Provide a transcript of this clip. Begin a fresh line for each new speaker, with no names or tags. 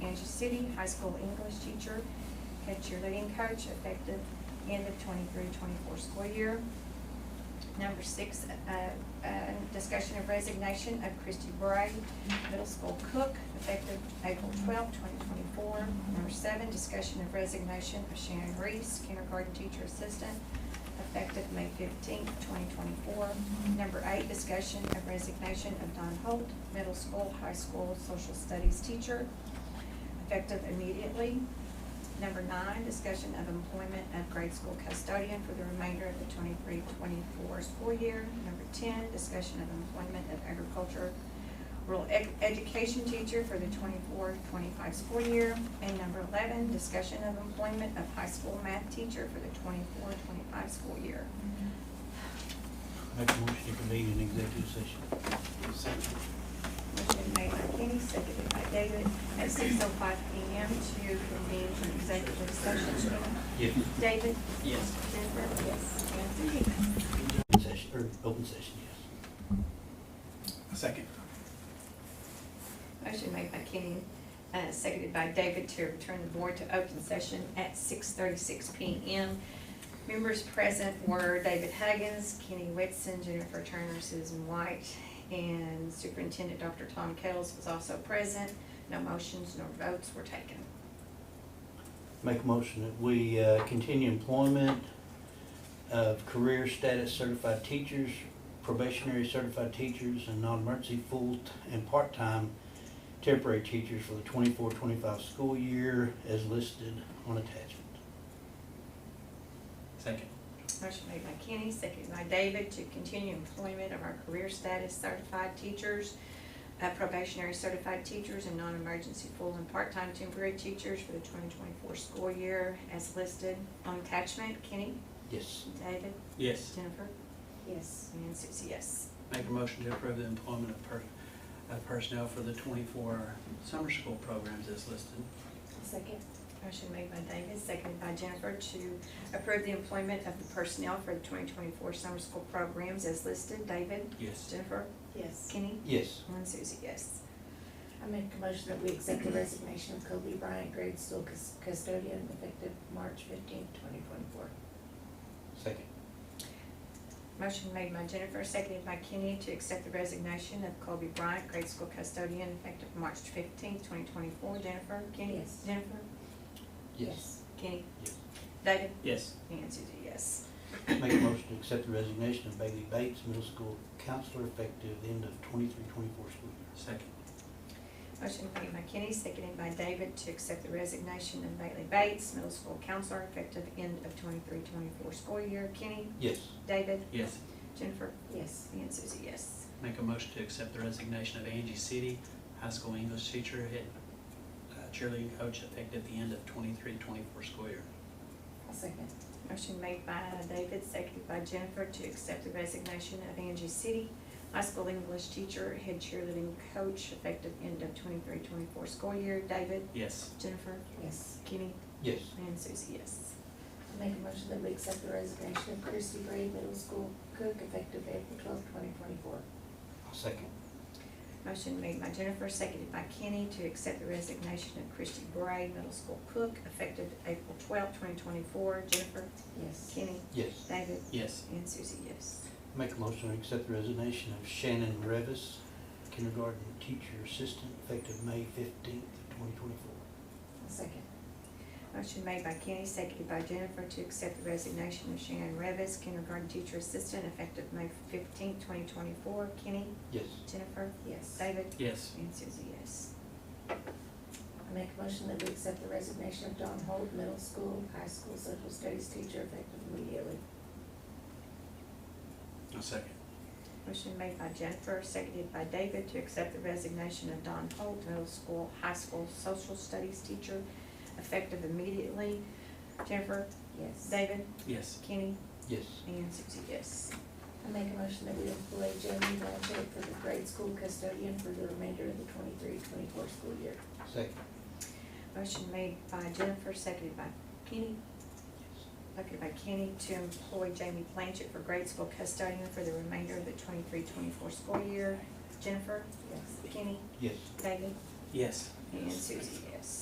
Dodger City, high school English teacher, head cheerleading coach, effective end of 23-24 school year. Number six, uh, uh, discussion of resignation of Christy Bray, middle school cook, effective April twelfth, twenty twenty-four. Number seven, discussion of resignation of Shannon Reese, kindergarten teacher assistant, effective May fifteenth, twenty twenty-four. Number eight, discussion of resignation of Don Holt, middle school, high school, social studies teacher, effective immediately. Number nine, discussion of employment of grade school custodian for the remainder of the 23-24 school year. Number ten, discussion of employment of agriculture rural ed- education teacher for the 24-25 school year. And number eleven, discussion of employment of high school math teacher for the 24-25 school year.
Make a motion to convene an executive session.
Motion made by Kenny, seconded by David, at six oh five P M to convene an executive session.
Yes.
David?
Yes.
Jennifer? Yes. And Susie?
Open session, or open session, yes.
Second.
Motion made by Kenny, uh, seconded by David to return the board to open session at six thirty-six P M. Members present were David Huggins, Kenny Whitson, Jennifer Turner, Susan White, and Superintendent Dr. Tom Kettles was also present. No motions nor votes were taken.
Make a motion that we uh, continue employment of career status certified teachers, probationary certified teachers, and non-emergency full and part-time temporary teachers for the 24-25 school year as listed on attachment.
Second.
Motion made by Kenny, seconded by David to continue employment of our career status certified teachers, uh, probationary certified teachers, and non-emergency full and part-time temporary teachers for the twenty twenty-four school year as listed on attachment. Kenny?
Yes.
David?
Yes.
Jennifer? Yes. And Susie, yes.
Make a motion to approve the employment of per, of personnel for the twenty-four summer school programs as listed.
Second. Motion made by David, seconded by Jennifer to approve the employment of the personnel for the twenty twenty-four summer school programs as listed. David?
Yes.
Jennifer?
Yes.
Kenny?
Yes.
And Susie, yes.
I make a motion that we accept the resignation of Kobe Bryant, grade school cus- custodian, effective March fifteenth, twenty twenty-four.
Second.
Motion made by Jennifer, seconded by Kenny to accept the resignation of Colby Bryant, grade school custodian, effective March fifteenth, twenty twenty-four. Jennifer, Kenny?
Yes.
Jennifer? Kenny?
Yes.
David?
Yes.
And Susie, yes.
Make a motion to accept the resignation of Bailey Bates, middle school counselor, effective end of 23-24 school year.
Second.
Motion made by Kenny, seconded by David to accept the resignation of Bailey Bates, middle school counselor, effective end of 23-24 school year. Kenny?
Yes.
David?
Yes.
Jennifer?
Yes.
And Susie, yes.
Make a motion to accept the resignation of Angie City, high school English teacher, head uh, cheerleading coach, effective the end of 23-24 school year.
I'll second.
Motion made by David, seconded by Jennifer to accept the resignation of Angie City, high school English teacher, head cheerleading coach, effective end of 23-24 school year. David,
Yes.
Jennifer,
Yes.
Kenny,
Yes.
and Susie, yes.
I make a motion that we accept the resignation of Christy Gray, middle school cook, effective April twelfth, twenty twenty-four.
I'll second.
Motion made by Jennifer, seconded by Kenny to accept the resignation of Christy Bray, middle school cook, effective April twelfth, twenty twenty-four. Jennifer,
Yes.
Kenny,
Yes.
David,
Yes.
and Susie, yes.
Make a motion to accept the resignation of Shannon Revis, kindergarten teacher assistant, effective May fifteenth, twenty twenty-four.
I'll second.
Motion made by Kenny, seconded by Jennifer to accept the resignation of Shannon Revis, kindergarten teacher assistant, effective May fifteenth, twenty twenty-four. Kenny,
Yes.
Jennifer,
Yes. I
David,
Yes.
and Susie, yes.
make a motion that we accept the resignation of Don Holt, middle school, high school, social studies teacher, effective immediately.
A second.
Motion made by Jennifer, seconded by David to accept the resignation of Don Holt, middle school, high school social studies teacher, effective immediately. Jennifer,
Yes.
David,
Yes.
Kenny,
Yes.
and Susie, yes.
I make a motion that we employ Jamie Blanchett for the grade school custodian for the remainder of the 23-24 school year.
Second.
Motion made by Jennifer, seconded by Kenny, seconded by Kenny to employ Jamie Blanchett for grade school custodian for the remainder of the 23-24 school year. Jennifer,
Yes.
Kenny,
Yes.
David,
Yes.
and Susie, yes.